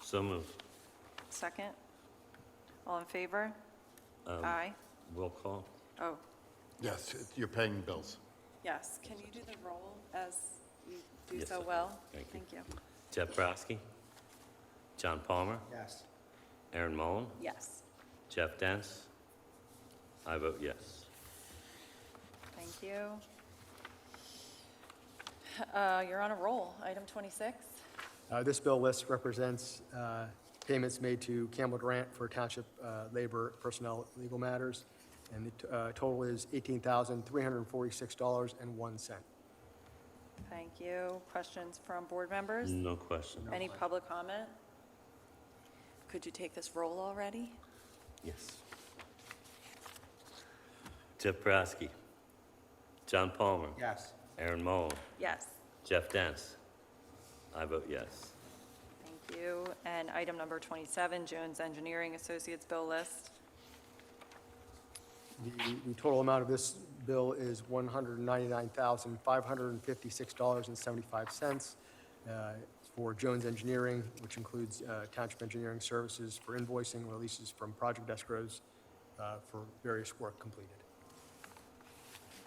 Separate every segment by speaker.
Speaker 1: So move.
Speaker 2: Second? All in favor?
Speaker 1: Um,
Speaker 2: Aye.
Speaker 1: Roll call?
Speaker 2: Oh,
Speaker 3: Yes, you're paying bills.
Speaker 2: yes. Can you do the roll as you do
Speaker 1: Yes,
Speaker 2: so
Speaker 1: I-
Speaker 2: well?
Speaker 1: thank you.
Speaker 2: Thank you.
Speaker 1: Jeff Brodsky? John Palmer?
Speaker 4: yes,
Speaker 1: Aaron Mullen?
Speaker 2: Yes,
Speaker 1: Jeff Dance? I vote yes.
Speaker 2: thank you. Uh, You're on a roll. Item 26?
Speaker 4: Uh, This bill list represents uh, payments made to Campbell Grant for township uh, labor, personnel, legal matters, and the t- uh, total is $18,346.01.
Speaker 2: Thank you. Questions from board members?
Speaker 1: No question.
Speaker 2: Any public comment? Could you take this roll already?
Speaker 1: Yes. Jeff Brodsky? John Palmer?
Speaker 4: Yes.
Speaker 1: Aaron Mullen?
Speaker 2: Yes,
Speaker 1: Jeff Dance? I vote yes.
Speaker 2: thank you. And item number 27, Jones Engineering Associates bill list.
Speaker 4: The the total amount of this bill is $199,556.75 uh, for Jones Engineering, which includes uh, Township Engineering Services for invoicing releases from project escrows uh, for various work completed.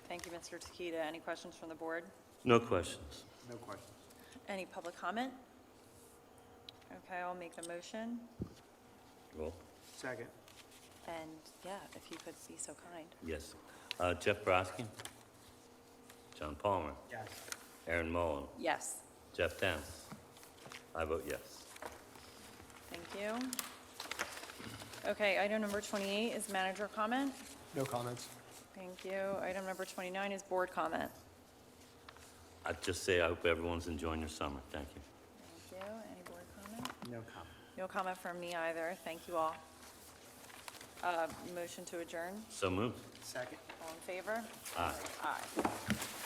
Speaker 2: Thank you, Mr. Tequita. Any questions from the board?
Speaker 1: No questions.
Speaker 4: No questions.
Speaker 2: Any public comment? Okay, I'll make the motion,
Speaker 1: Roll?
Speaker 4: Second.
Speaker 2: and yeah, if you could be so kind.
Speaker 1: Yes. Uh, Jeff Brodsky? John Palmer?
Speaker 4: Yes.
Speaker 1: Aaron Mullen?
Speaker 2: Yes,
Speaker 1: Jeff Dance? I vote yes.
Speaker 2: thank you. Okay, item number 28 is manager comment.
Speaker 4: No comments.
Speaker 2: Thank you. Item number 29 is board comment.
Speaker 1: I'd just say I hope everyone's enjoying their summer. Thank you.
Speaker 2: Thank you. Any board comment?
Speaker 4: No comment.
Speaker 2: No comment from me either. Thank you all. Uh, Motion to adjourn.
Speaker 1: So moved.
Speaker 4: Second.
Speaker 2: All in favor?
Speaker 1: Aye.
Speaker 2: Aye.